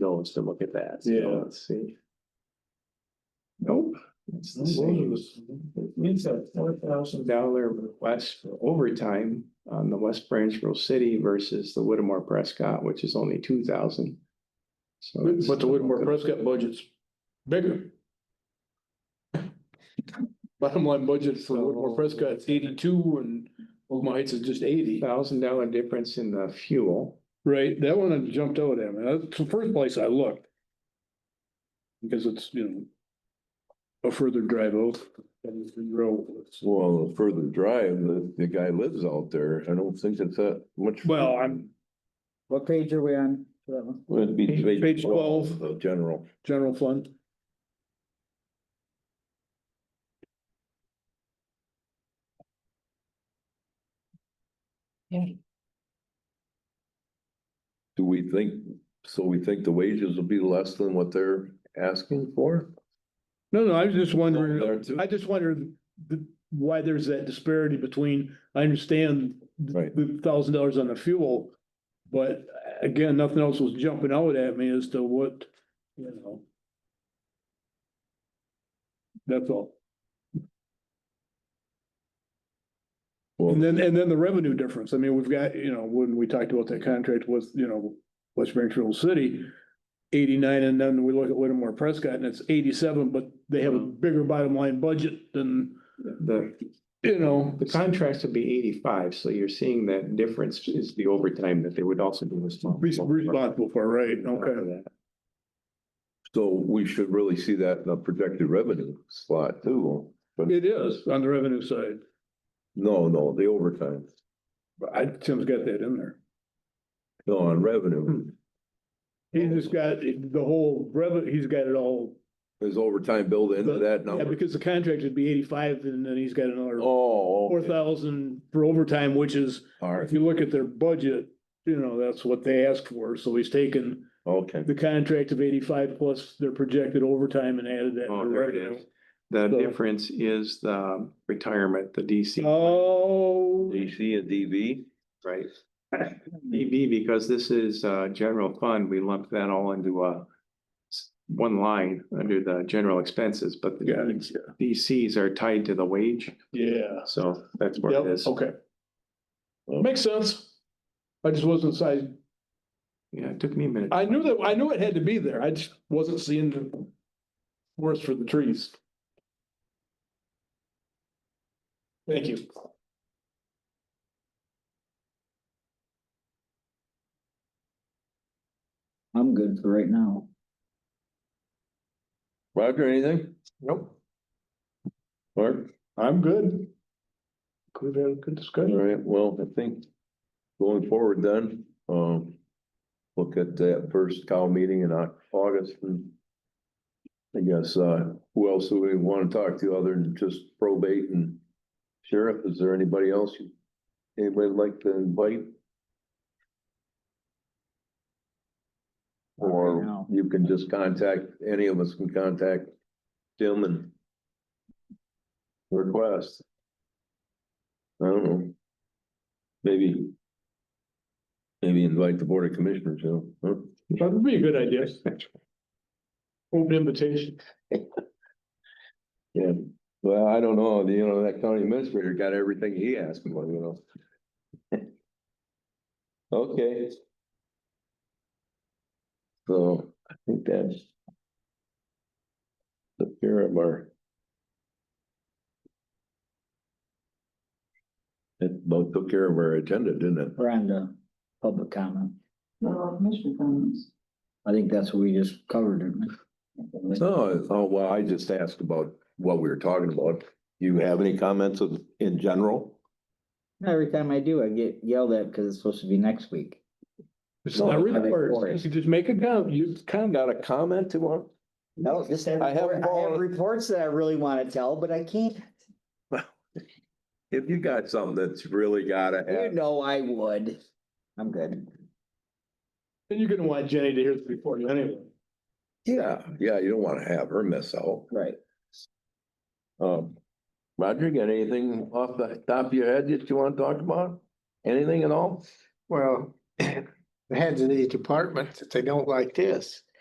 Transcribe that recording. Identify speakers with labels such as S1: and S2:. S1: phones to look at that. So
S2: Yeah.
S1: Let's see.
S2: Nope. It's the same. It's a four thousand dollar request for overtime on the West Branchville City versus the Whittemore Prescott, which is only two thousand. So. it's-
S3: But the Whitmore Prescott budget's bigger. Bottom line budget for Whitmore Prescott is eighty-two and Oklahoma Heights is just eighty.
S2: Thousand dollar difference in the fuel.
S3: Right, that one had jumped out at me. That's the first place I looked. Because it's, you know, a further drive out. than the road.
S4: Well, the further drive, the, the guy lives out there. I don't think it's that much.
S3: Well, I'm
S5: What page are we on for that one?
S4: Would be.
S3: Page 12.
S4: The general.
S3: general fund.
S4: Do we think, so we think the wages will be less than what they're asking for?
S3: No, no, I was just
S4: Oh, there
S3: wondering,
S4: too?
S3: I just wondered the, why there's that disparity between, I understand
S4: Right.
S3: the thousand dollars on the fuel. But again, nothing else was jumping out at me as to what, you know. That's all.
S4: Well,
S3: And then, and then the revenue difference. I mean, we've got, you know, when we talked about that contract with, you know, West Springfield City. Eighty-nine, and then we look at Whittemore Prescott and it's eighty-seven, but they have a bigger bottom line budget than,
S2: The,
S3: you know.
S2: the contracts would be eighty-five, so you're seeing that difference is the overtime that they would also be
S3: res-
S2: responsible. for.
S3: Responsible for, right,
S2: For
S3: okay.
S2: that.
S4: so we should really see that in the projected revenue slot too. But
S3: It is on the revenue side.
S4: no, no, the overtime,
S3: But I, Tim's got that in there.
S4: no, on
S3: Hmm.
S4: revenue.
S3: He's just got the whole revenue, he's got it all.
S4: Is overtime built into that
S3: Yeah,
S4: number?
S3: because the contract would be eighty-five and then he's got another
S4: Oh,
S3: four
S4: okay.
S3: thousand for overtime, which is
S4: all
S3: If
S4: right,
S3: you look at their budget, you know, that's what they asked for, so he's taken
S4: okay.
S3: the contract of eighty-five plus their projected overtime and added that. to
S2: Oh, there it
S3: revenue.
S2: is. The
S3: So-
S2: difference is the retirement, the DC.
S3: Oh,
S4: DC and DV?
S2: Right. EB, because this is uh general fund, we lump that all into a s- one line under the general expenses, but
S3: got
S2: the
S3: it,
S2: DCs are tied to the wage,
S3: yeah.
S2: so that's where
S3: Yep,
S2: it is.
S3: okay. Makes sense. I just wasn't, si- I,
S2: Yeah, it took me a minute.
S3: I knew that, I knew it had to be there, I just wasn't seeing the forest for the trees. Thank you.
S5: I'm good for right now.
S4: Roger, anything?
S3: Nope.
S4: Mark?
S3: I'm good. Could have had a good
S4: All
S3: discussion.
S4: right, well, I think going forward then, um, look at that first cow meeting in Au- August and I guess, uh, who else do we want to talk to other than just probate and sheriff? Is there anybody else? you- Anybody like to invite?
S5: Not right
S4: Or
S5: now.
S4: you can just contact, any of us can contact Tim and request. I don't know. Maybe. Maybe invite the board of commissioners, you know, huh?
S3: That'd be a good idea. Open invitation.
S4: Yeah, well, I don't know, you know, that county administrator got everything he asked for, you know. Okay. So I think that's. The care of our. It about took care of our agenda, didn't it?
S5: We're on to public comment. comments. I think that's what we just covered. didn't we?
S4: No, oh, well, I just asked about what we were talking about. You have any comments of, in general?
S5: Every time I do, I get yelled at because it's supposed to be next week.
S3: It's
S4: No,
S3: not
S4: I
S5: think
S3: required. You
S5: forest.
S3: could just make a comment. You,
S4: Kind of got a comment to one?
S5: No, just have,
S4: I haven't
S5: report- I have
S4: followed-
S5: reports that I really want to tell, but I can't.
S4: If you got something that's really gotta
S5: You
S4: happen,
S5: know I would. I'm good.
S3: and you're gonna want Jenny to hear this before you anyway.
S4: yeah, yeah, you don't wanna have her miss out.
S5: Right.
S4: Um, Roger, got anything off the top of your head that you wanna talk about? Anything at all?
S6: Well, the heads of the department, that they don't like this.